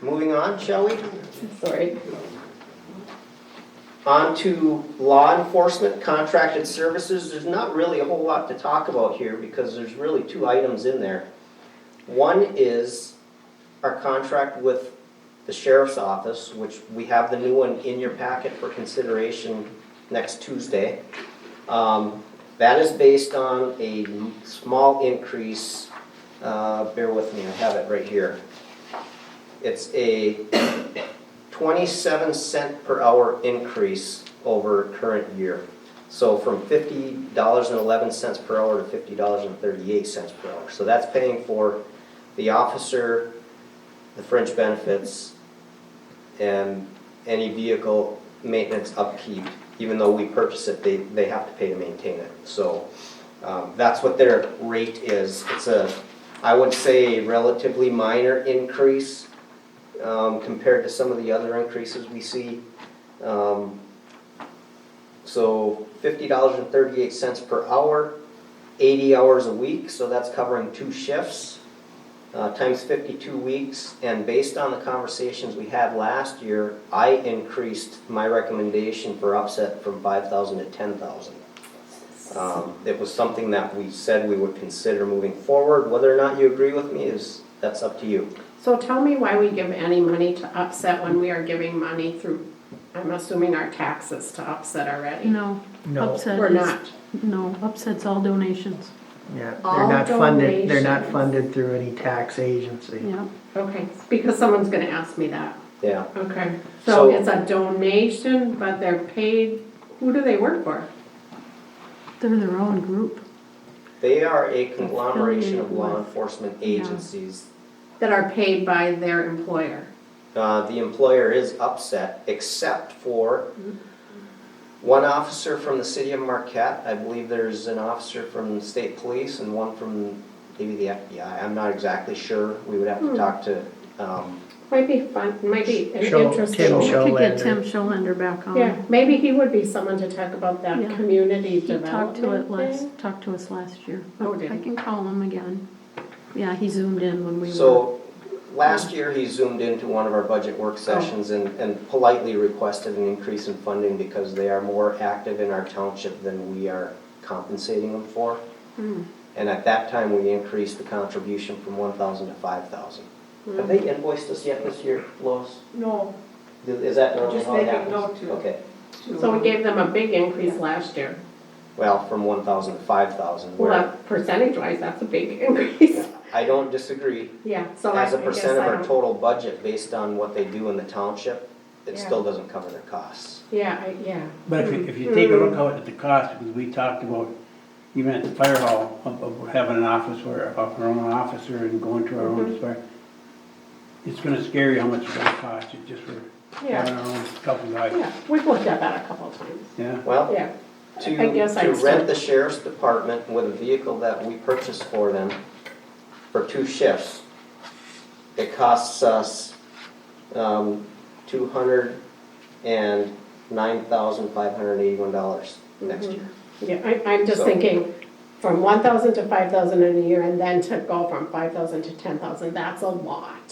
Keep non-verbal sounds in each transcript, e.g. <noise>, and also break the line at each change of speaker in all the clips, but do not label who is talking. moving on, shall we?
Sorry.
On to law enforcement contracted services, there's not really a whole lot to talk about here because there's really two items in there. One is our contract with the sheriff's office, which we have the new one in your packet for consideration next Tuesday. Um, That is based on a small increase, uh, bear with me, I have it right here. It's a 27 cent per hour increase over current year. So from $50.11 per hour to $50.38 per hour. So that's paying for the officer, the fringe benefits, and any vehicle maintenance upkeep. Even though we purchase it, they, they have to pay to maintain it. So um, that's what their rate is. It's a, I would say relatively minor increase um, compared to some of the other increases we see. Um, So fifty dollars and thirty-eight cents per hour, eighty hours a week, so that's covering two shifts, uh, times fifty-two weeks. And based on the conversations we had last year, I increased my recommendation for upset from five thousand to ten thousand. Um, It was something that we said we would consider moving forward. Whether or not you agree with me is, that's up to you.
So tell me why we give any money to Upset when we are giving money through, I'm assuming our taxes to Upset already?
No,
No,
upset
We're
is,
not.
no, upset's all donations,
yeah, they're
All
not funded, they're not
donations.
funded through any tax agency.
yeah.
Okay, because someone's gonna ask me that.
Yeah.
Okay,
So-
so it's a donation, but they're paid, who do they work for?
They're their own group.
They are a conglomeration of law enforcement agencies.
That are paid by their employer?
Uh, the employer is upset, except for one officer from the city of Marquette. I believe there's an officer from the state police and one from maybe the FBI. I'm not exactly sure. We would have to talk to, um,
Might be fun, might be an
Show- Tim
interesting.
Show-
Could get
Scholander.
Tim Scholander back
Yeah,
on.
maybe he would be someone to talk about that
Yeah.
community
He talked to it
development
last,
thing.
talked to us last year.
Oh, did
I
he?
can call him again. Yeah, he zoomed in when we were,
so last year he zoomed into one of our budget work sessions and, and politely requested an increase in funding because they are more active in our township than we are compensating them for.
Hmm,
And at that time, we increased the contribution from one thousand to five thousand.
Hmm.
Have they invoiced us yet this year, Lois?
No,
Is that normally
Just
how it
making
happens?
note to-
Okay,
So we gave them a big increase last year.
well, from one thousand to five thousand, where,
Well, percentage wise, that's a big increase.
I don't disagree.
<laughs> Yeah, so I I
As
guess
a percent of
I
our
don't-
total budget, based on what they do in the township, it
Yeah.
still doesn't cover their costs.
Yeah, I, yeah.
But if you, if you take a look out at the cost, because we talked about, even at the fire hall, of, of having an office where, of our own officer and going to our own
Mm-hmm.
fire. It's gonna scare you how much it's gonna cost you just for
Yeah.
having our own couple
Yeah,
guys,
we've looked at that a couple times,
yeah?
Well,
yeah.
to,
I guess I'd
to rent
still-
the sheriff's department with a vehicle that we purchased for them for two shifts, it costs us, um, two hundred and nine thousand five hundred and eighty-one dollars next
Mm-hmm.
year.
Yeah, I, I'm just
So-
thinking, from one thousand to five thousand in a year, and then to go from five thousand to ten thousand, that's a lot.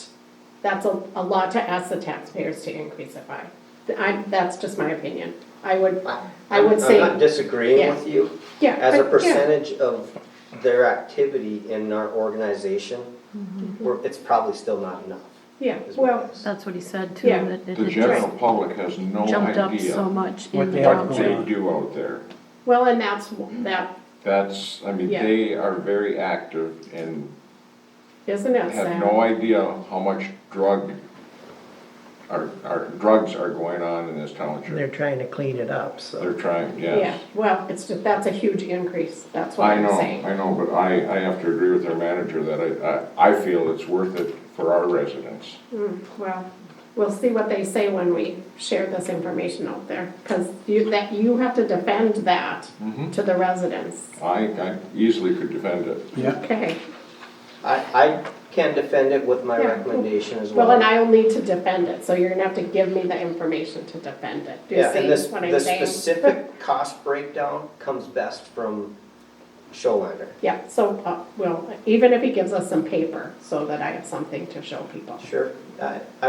That's a, a lot to ask the taxpayers to increase it by. I, that's just my opinion. I would, I would say.
I'm not disagreeing
Yeah.
with you.
yeah,
As
I-
a
yeah.
percentage of their activity in our organization, we're, it's probably still not enough.
Yeah,
is what it
Mm-hmm. well,
is.
that's what he said too,
Yeah.
that it
The
had
general public has no
just jumped up so
idea
much
What
in the
they have
job
going
they
search.
on.
do out there.
well, and that's, that,
That's, I mean,
Yeah.
they are very active and
isn't it
have
sad?
no idea how much drug, are, are, drugs are going on in this
They're
township.
trying to clean it up, so.
They're trying,
Yeah,
yes.
well, it's, ju- that's a huge increase, that's what
I
I'm
know,
saying.
I know, but I, I have to agree with their manager that I, I, I feel it's worth it for our residents.
Mm, Well, we'll see what they say when we share this information out there, because you, that, you have to defend that
Mm-hmm.
to the residents.
I, I easily could defend it.
Yeah,
Okay,
I, I can defend it with my
Yeah.
recommendation as well.
well, and I'll need to defend it, so you're gonna have to give me the information to defend it. Do you
Yeah, and this,
see what
the
I'm saying? <laughs>
specific cost breakdown comes best from Showlander.
Yeah, so, uh, well, even if he gives us some paper, so that I have something to show people.
Sure, I,